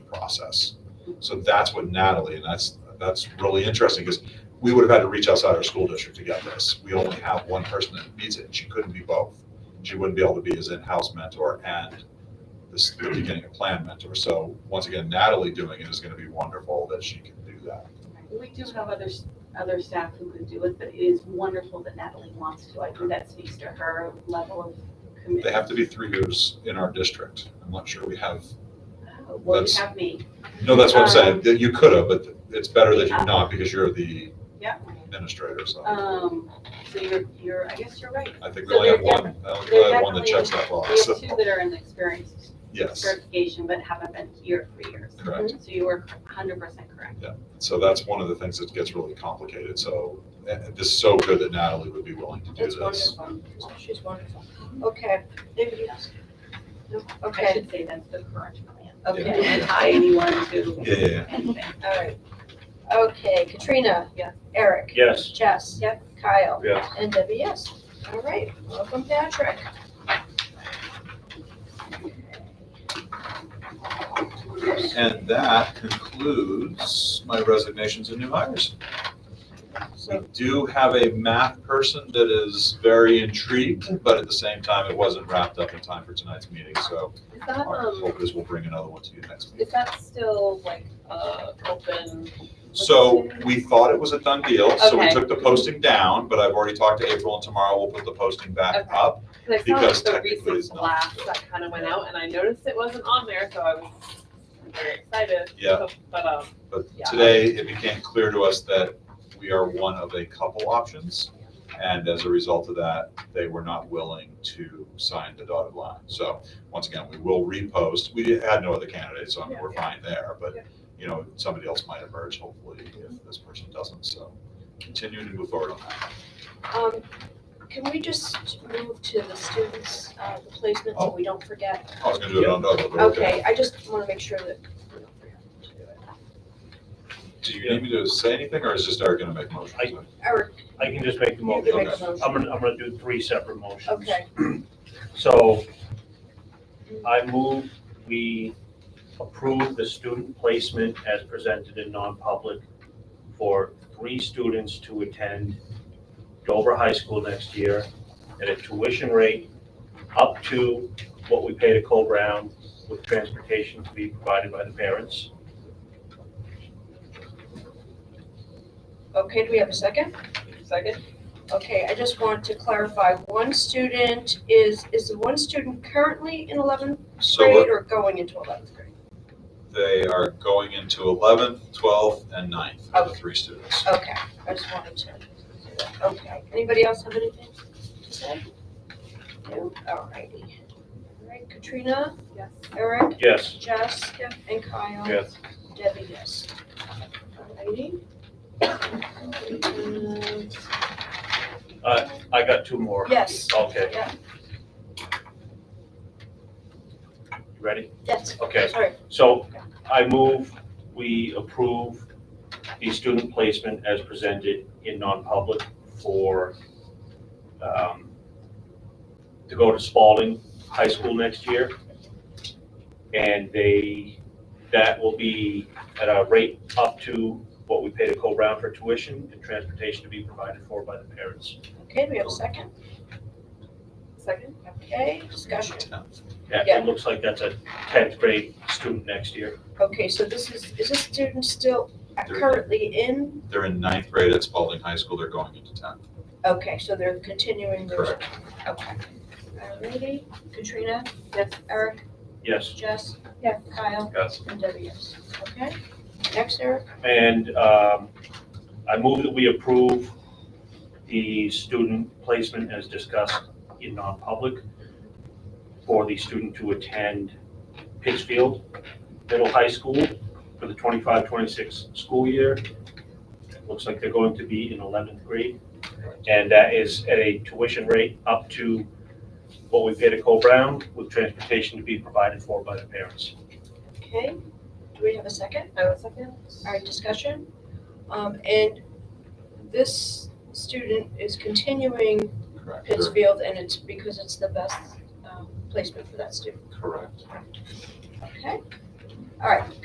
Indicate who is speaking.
Speaker 1: process. So that's what Natalie, and that's, that's really interesting because we would have had to reach outside our school district to get this. We only have one person that needs it and she couldn't be both. She wouldn't be able to be his in-house mentor and this the beginning of plan mentor. So once again, Natalie doing it is going to be wonderful that she can do that.
Speaker 2: We do have other, s- other staff who could do it, but it is wonderful that Natalie wants to. I think that speaks to her level of commitment.
Speaker 1: They have to be three years in our district. I'm not sure we have,
Speaker 2: Oh, Well, you
Speaker 1: that's-
Speaker 2: have me.
Speaker 1: no, that's what I'm saying,
Speaker 2: Um,
Speaker 1: that you could have, but it's better that you're not because you're the
Speaker 2: Yep.
Speaker 1: administrator, so.
Speaker 2: Um, so you're, you're, I guess you're right.
Speaker 1: I think we
Speaker 2: so
Speaker 1: only have
Speaker 2: they're
Speaker 1: one, I only have one that
Speaker 2: they're
Speaker 1: checks that
Speaker 2: We
Speaker 1: box,
Speaker 2: have
Speaker 1: so,
Speaker 2: two that are in the experience
Speaker 1: yes,
Speaker 2: certification, but haven't been here for years.
Speaker 1: correct.
Speaker 3: Mm-hmm.
Speaker 2: So you were hundred percent correct.
Speaker 1: So that's one of the things that gets really complicated, so uh, this is so good that Natalie would be willing to do
Speaker 3: It's
Speaker 1: this.
Speaker 3: wonderful. She's wonderful. Okay. Maybe you-
Speaker 2: I
Speaker 3: Okay.
Speaker 2: should say that's the current plan.
Speaker 1: Yeah.
Speaker 2: And
Speaker 3: Okay.
Speaker 2: then tie anyone to
Speaker 1: Yeah, yeah, yeah.
Speaker 2: anything.
Speaker 3: All right. Okay. Katrina.
Speaker 2: Yeah.
Speaker 3: Eric.
Speaker 4: Yes.
Speaker 3: Jess. Yep. Kyle.
Speaker 4: Yes.
Speaker 3: And Debbie, yes. All right. Welcome, Patrick.
Speaker 1: And that concludes my resignations and new hires. We do have a math person that is very intrigued, but at the same time, it wasn't wrapped up in time for tonight's meeting, so
Speaker 5: Is that,
Speaker 1: our
Speaker 5: um,
Speaker 1: hope is we'll bring another one to you next
Speaker 5: is
Speaker 1: week.
Speaker 5: that still like, uh, open?
Speaker 1: So we thought it was a done deal, so we
Speaker 5: Okay.
Speaker 1: took the posting down, but I've already talked to April and tomorrow we'll put the posting back
Speaker 5: Okay.
Speaker 1: up.
Speaker 5: Cause I saw
Speaker 1: Because
Speaker 5: like the
Speaker 1: technically it's
Speaker 5: recent
Speaker 1: not
Speaker 5: blast
Speaker 1: still.
Speaker 5: that kinda went out and I noticed it wasn't on there, so I was very excited.
Speaker 1: Yeah.
Speaker 5: So- But, um,
Speaker 1: But
Speaker 5: Yeah.
Speaker 1: today, it became clear to us that we are one of a couple options. And as a result of that, they were not willing to sign the dotted line. So once again, we will repost. We had no other candidates, so I mean, we're fine there. But,
Speaker 5: Yeah.
Speaker 1: you know, somebody else might emerge hopefully if this person doesn't. So continuing to move forward on that.
Speaker 3: Um, can we just move to the students, uh, the placement so we don't forget?
Speaker 1: I was going to do it on Novo, but okay.
Speaker 3: Okay, I just want to make sure that we don't forget to do it.
Speaker 1: Do you need me to say anything or is just Eric going to make motions?
Speaker 4: I-
Speaker 3: Eric,
Speaker 4: I can just make the
Speaker 3: you
Speaker 4: motion.
Speaker 3: can make
Speaker 1: Okay.
Speaker 3: a motion.
Speaker 4: I'm gonna, I'm gonna do three separate motions.
Speaker 3: Okay,
Speaker 4: So I move we approve the student placement as presented in non-public for three students to attend Dover High School next year at a tuition rate up to what we pay to Cole Brown with transportation to be provided by the parents.
Speaker 3: okay, do we have a second?
Speaker 5: second,
Speaker 3: Okay, I just want to clarify, one student is, is the one student currently in eleventh
Speaker 1: So
Speaker 3: grade
Speaker 1: we're-
Speaker 3: or going into eleventh grade?
Speaker 1: they are going into 11th, 12th, and 9th, the
Speaker 3: Okay.
Speaker 1: three students.
Speaker 3: Okay, I just wanted to, do that. okay, anybody else have anything to say? No, alrighty. Alright, Katrina,
Speaker 5: yes.
Speaker 3: Eric,
Speaker 4: Yes.
Speaker 3: Jess, and Kyle.
Speaker 4: Yes.
Speaker 3: Debbie, yes. Alrighty. Um,
Speaker 4: Uh, I got two more.
Speaker 3: Yes.
Speaker 4: Okay.
Speaker 3: Yeah.
Speaker 4: You ready?
Speaker 3: Yes,
Speaker 4: Okay.
Speaker 3: sorry,
Speaker 4: So I move we approve the student placement as presented in non-public for, um, to go to Spalding High School next year. And they, that will be at a rate up to what we pay to Cole Brown for tuition and transportation to be provided for by the parents.
Speaker 3: okay, do we have a second?
Speaker 5: Second?
Speaker 3: Okay, discussion.
Speaker 4: Yeah,
Speaker 3: Yeah.
Speaker 4: it looks like that's a tenth grade student next year.
Speaker 3: Okay, so this is, is this student still currently in?
Speaker 1: They're in ninth grade at Spalding High School, they're going into tenth.
Speaker 3: Okay, so they're continuing their,
Speaker 1: Correct.
Speaker 3: okay. Alrighty, Uh, Katrina,
Speaker 2: Yes.
Speaker 3: Eric,
Speaker 4: Yes.
Speaker 3: Jess, yeah, Kyle,
Speaker 4: Yes.
Speaker 3: and Debbie, yes. Okay, next, Eric?
Speaker 4: And um, I move that we approve the student placement as discussed in non-public for the student to attend Pittsfield Middle High School for the 25-26 school year. It Looks like they're going to be in eleventh grade. And that is at a tuition rate up to what we pay to Cole Brown with transportation to be provided for by the parents.
Speaker 3: Okay, do we have a second?
Speaker 5: I was second?
Speaker 3: Alright, discussion. Um, and this student is continuing
Speaker 1: Correct. They're-
Speaker 3: Pittsfield and it's because it's the best, um, placement for that student,
Speaker 1: Correct.
Speaker 3: okay? Alright,